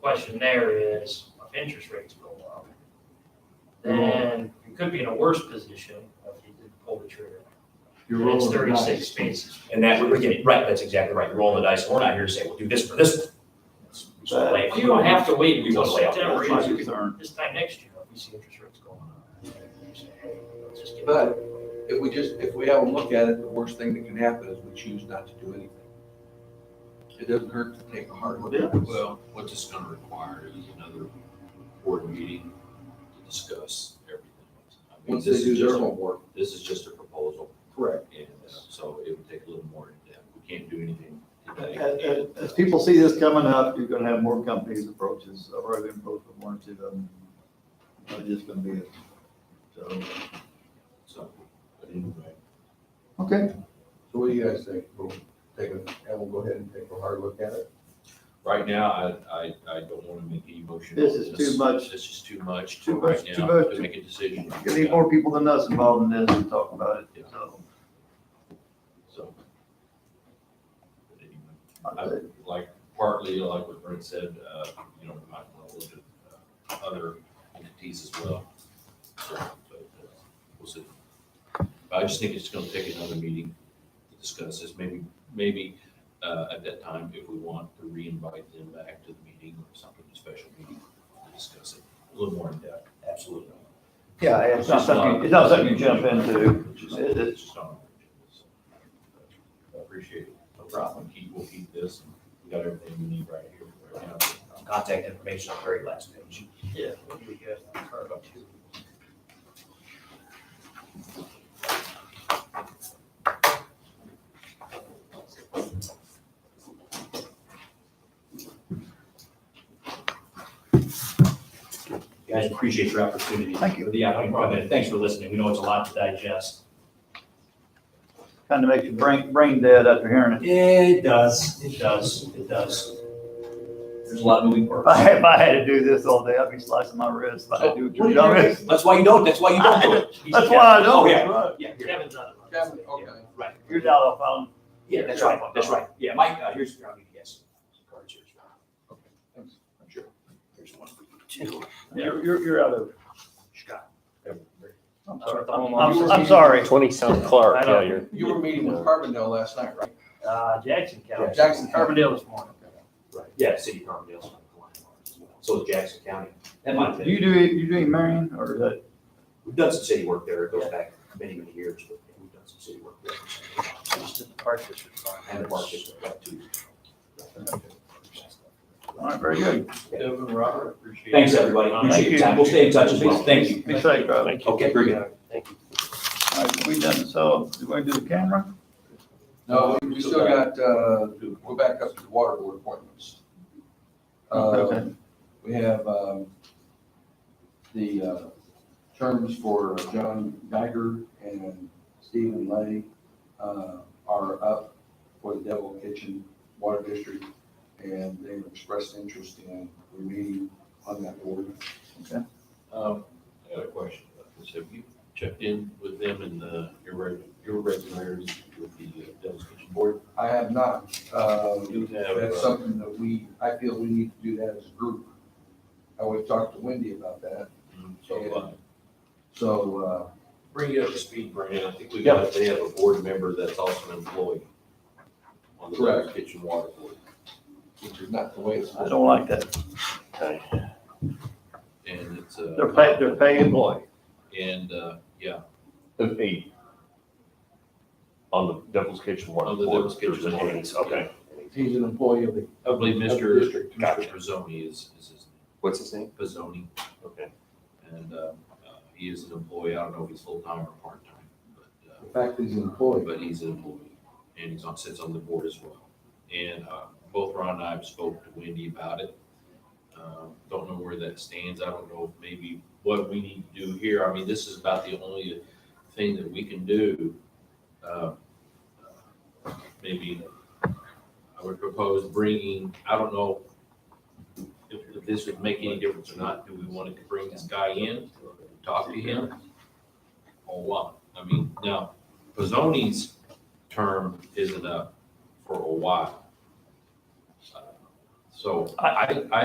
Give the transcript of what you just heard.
question there is, if interest rates go up, then you could be in a worse position if you didn't pull the trigger. You're And It's rolling the dice. thirty-six basis. And that, we're getting, right, that's exactly right. You're rolling the dice. We're not here to say, we'll do this for this. one. It's- we just wanna lay Well, out- you don't have to wait We until want to lay out. September, the you options. can- this time next year, if we see interest rates going up. you say, hey, let's just get- But if we just, if we haven't looked at it, the worst thing that can happen is we choose not to do anything. It doesn't hurt to take a hard look. at it. Well, what this is gonna require is another board meeting to discuss everything. I mean, Once they this is do their just a- homework. This is just a proposal, Correct. and uh, so it would take a little more in depth. We can't do anything today. As, as- as people see this coming up, you're gonna have more companies approaches, or have approached one or two of them. It's just gonna be it. So, So, but anyway. okay, So what do you guys think? We'll take a, and we'll go ahead and take a hard look at it. Right now, I, I, I don't wanna make any motion. This on is too much. This is too much Too to much, right too now, much. to make a decision. you need more people than us involved in this to talk about it, so. So. But anyway, I would like, partly like what Brent said, uh, you know, we might want to look at uh, other entities as well. So, but, uh, We'll see. But I just think it's gonna take another meeting to discuss this, maybe, maybe, uh, at that time, if we want to re-invite them back to the meeting or something, a special meeting to discuss it a little more in depth. Absolutely. Yeah, it's not something, it's not something you jump into. It's just- it's just on our agenda, so. I Appreciate it. No problem. Keep, we'll keep this. and We got everything we need right here. right now. Contact information on the very last page. Yeah. we'll do that on card two. Guys, appreciate your opportunity. Thank you. For the opportunity. Thanks for listening. We know it's a lot to digest. Kind of makes your brain, brain dead after hearing it. It does. It does. It does. There's a lot of moving If I parts. had, if I had to do this all day, I'd be slicing my wrist, but I do. What did you miss? That's why you don't, that's why you don't do it. That's why I Oh, don't. yeah, Right. yeah, yeah. Kevin's on it. Kevin, okay. Right. You're down off on. Yeah, that's right, that's right. Yeah, Mike, uh, here's, I'll give you guys some cards here. Sure. Here's one for you too. You're, you're, you're out of. it. Scott. I'm That's what sorry. the home I'm, office I'm is. sorry. Twenty-some Clark, I know. yeah, you're, You were meeting with Carbondale last night, right? Uh, Jackson County. Jackson County. Carbondale this morning. Right, yeah, City of Carbondale's on the line as well. So is Jackson County. That might Do be, you do, you doing Marion or is that? we've done some city work there. It goes back many, many years, but we've done some city work there. Just in the park district. And the park district, about two years. All right, very good. Kevin, Robert, appreciate it. Thanks, everybody. Uh, Appreciate your time. We'll stay in touch as well. Thank you. Be safe, brother. thank you. Okay, very good. Thank you. All right, we done, so, do we do the camera? No, we- we still got, uh, we're back up to the water board appointments. Uh, Okay. We have um, the uh, terms for John Geiger and Stephen Lay uh, are up for the Devil Kitchen Water District, and they've expressed interest in remaining on that board. Um, I got a question about this. Have you checked in with them and uh, the irreg- irregularities with the uh, Devil's Kitchen Board? I have not. um, You have, That's uh, something that we, I feel we need to do that as a group. I would talk to Wendy about that, so, uh, so uh, Bring you up to speed, Brandon. I think we got, they have a board member that's also an employee on the Devil's Correct. Kitchen Water Board. which is not the way it's. I don't like that. And it's a. They're paid, they're paid employee. And, uh, yeah, There's eight. On the Devil's Kitchen one. On the Devil's Kitchen There's an one. eight, Okay. He's an employee of the I believe Of the Mr. district. Mr. Pizzoni is, is his What's his name? Pizzoni, Okay. and, uh, uh, he is an employee. I don't know if he's full-time or part-time, but, uh, The fact that he's an employee. but he's an employee, and he's on, sits on the board as well. And, uh, both Ron and I have spoke to Wendy about it. Um, Don't know where that stands. I don't know if maybe what we need to do here. I mean, this is about the only thing that we can do. Uh, Maybe I would propose bringing, I don't know if if this would make any difference or not. Do we want to bring this guy in, talk to him? Or what? I mean, now, Pizzoni's term isn't up for a while. So I, I